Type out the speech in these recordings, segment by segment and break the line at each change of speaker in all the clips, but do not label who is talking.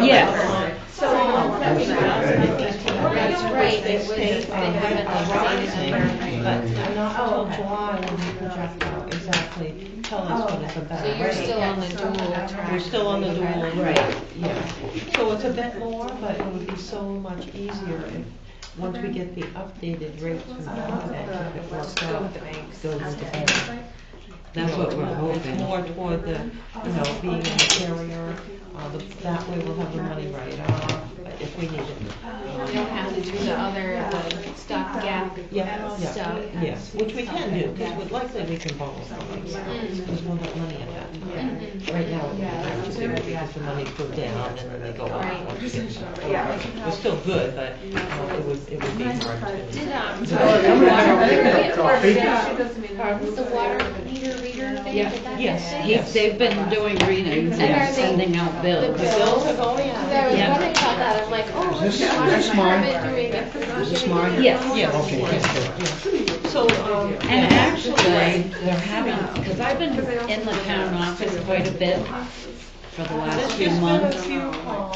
Yes.
So, um, that was not-
That's right, it was, they
Um,
haven't updated it, but,
I'm not until July when we project out exactly, tell us what it's about.
so you're still on the dual track.
We're still on the dual,
Right.
right, yeah. So it's a bit more, but it would be so much easier if, once we get the updated rates from the bank, if it works out. Go with the banks. That's what we're hoping. More toward the, you know, being a carrier, uh, the- that way we'll have the money right off, but if we need it.
We don't have to do the other, the stopgap
Yeah,
stuff.
yeah, yes, which we can do, because likely we can borrow from them, because we'll have money at that time. Right now, we have to do it because the money go down and then they go
Right.
up. once you get to- We're still good, but uh, it would, it would be hard to.
Did, um, the water meter reader thing, did that get
Yes,
fixed?
yes.
They've been doing readings
And are
and
they-
sending out
The
bills.
bills
are going
Because I was
Yeah.
wondering about that, I'm like, oh, what's
Is
the
this-
water
this mine?
department doing? They're
Is this
doing
mine?
their
Yes.
own
Yeah,
Okay,
work.
yes, sir.
So, um.
And actually, they're having, because I've been in the town office quite a bit for the last few months.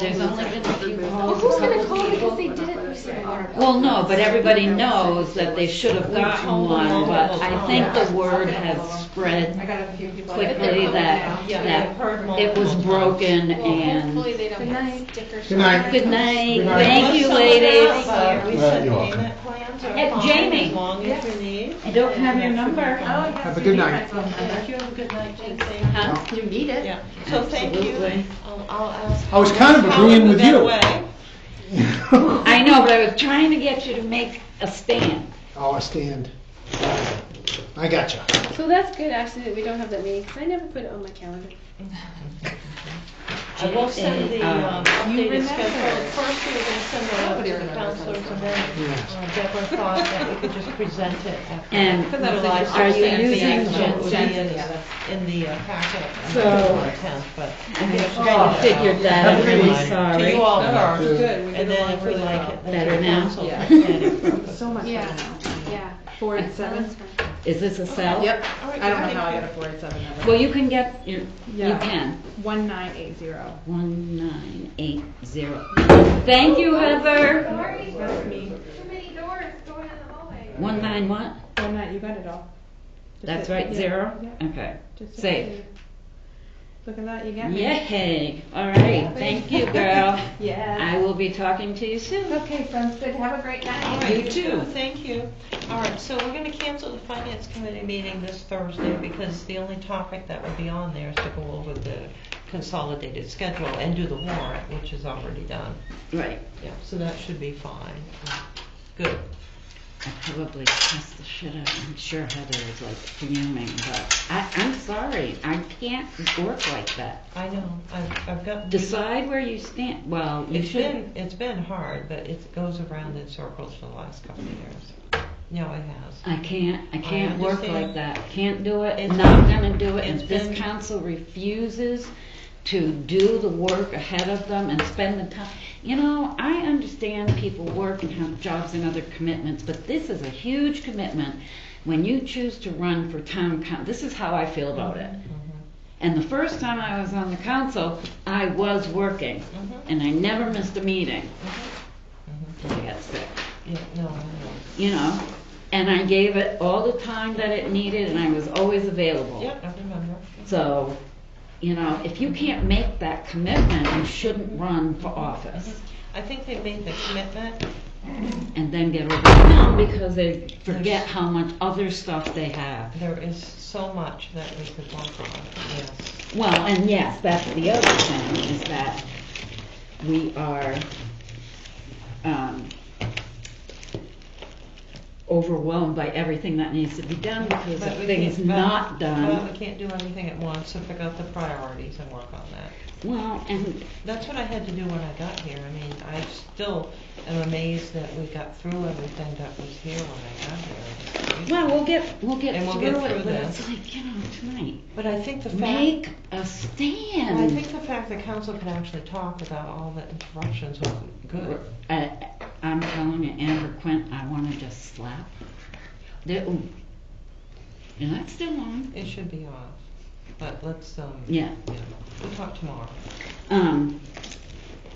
There's only been a few
Well,
calls.
who's gonna call because they didn't receive a water bill?
Well, no, but everybody knows that they should have gotten one, but I think the word has spread
got a few people.
quickly that,
Yeah, I've
that
heard
it was
multiple times.
broken
Well,
and,
hopefully they don't get sticker shock.
Good night.
good night,
Good night.
thank you ladies.
Uh, We said
you're welcome.
payment plans are
Hey,
fine
Jamie.
as long as you need.
I don't have your number.
"Oh,
Have a good night.
Thank you, have a good night, Jane. Thank you.
Huh? Uh, You need it.
Yeah, so thank you.
Absolutely.
Um, I'll ask-
I was kind of agreeing with you.
That way.
I know, but I was trying to get you to make a stand.
Oh, I stand. I got you.
So that's good, actually, that we don't have that meeting, because I never put it on my calendar.
I will send the um,
Um,
updated schedule. First, we were gonna send it out to the counselors, and then
Yes.
uh, Deborah thought that we could just present it at the.
And
July
are you
16th
using
meeting, so it would be
Jen-
in the- In the uh, packet.
So-
I
figured that out. I'm really
To
sorry.
you all first,
Good.
and
we did
then if we
really
like
well.
it, then
Better
the
now?
council.
Yeah.
All
So much.
Yeah,
better.
yeah.
Four and seven.
Is this a cell?
Yep.
right,
I don't know
thank
how I
you.
got a four and seven number.
Well, you can get, your- you
Yeah.
can,
One nine eight zero.
one nine eight zero. Thank you, Heather.
Sorry, too many doors going in the hallway.
One nine what?
One nine, you got it all. Just
That's
hit-
right,
yeah,
zero?
yeah,
Okay,
just hit
safe.
save. Look at that, you got me.
Yay, all right, thank you, girl.
Yeah.
I will be talking to you soon.
Okay, sounds good. Have a great night.
right,
You too.
Thank you. All right, so we're gonna cancel the finance committee meeting this Thursday because the only topic that would be on there is to go over the consolidated schedule and do the warrant, which is already done.
Right,
Yeah, so that should be fine. Good.
I probably cussed the shit out, I'm sure Heather is like fuming, but I, I'm sorry, I can't work like that.
I know, I've, I've got.
Decide where you stand, well, you
It's
should,
been, it's been hard, but it goes around in circles for the last couple of years. No, it has.
I can't, I can't work like
understand.
that, can't do it,
It's-
not gonna do it, and
it's
this
been-
council refuses to do the work ahead of them and spend the time. You know, I understand people work and have jobs and other commitments, but this is a huge commitment when you choose to run for town coun, this is how I feel about it.
Mm-hmm.
And the first time I was on the council, I was working,
Mm-hmm.
and I never missed a meeting. Till I got sick
Yeah, no, I know.
you know, and I gave it all the time that it needed, and I was always available.
Yeah, I remember.
So, you know, if you can't make that commitment, you shouldn't run for office
I think they made the commitment.
and then get overwhelmed because they forget how much other stuff they have.
There is so much that we could work on, yes.
Well, and yes, that's the other thing, is that we are, um, overwhelmed by everything that needs to be done because
But
if
we
things
can't- but-
not done.
But we can't do everything at once, so pick out the priorities and work on that.
Well, and
That's what I had to do when I got here. I mean, I still am amazed that we got through everything that was here when I got here. It's crazy.
Well, we'll get, we'll get
And we'll
through
get through
it, but
this.
it's like, you know, tonight,
But I think the fact,
make a
I
stand.
think the fact that council can actually talk without all the interruptions was good.
Uh, I'm telling you, Amber Quint, I wanna just slap her. There, ooh. And that's still on.
It should be off, but let's, um,
Yeah.
We'll talk tomorrow.
Um,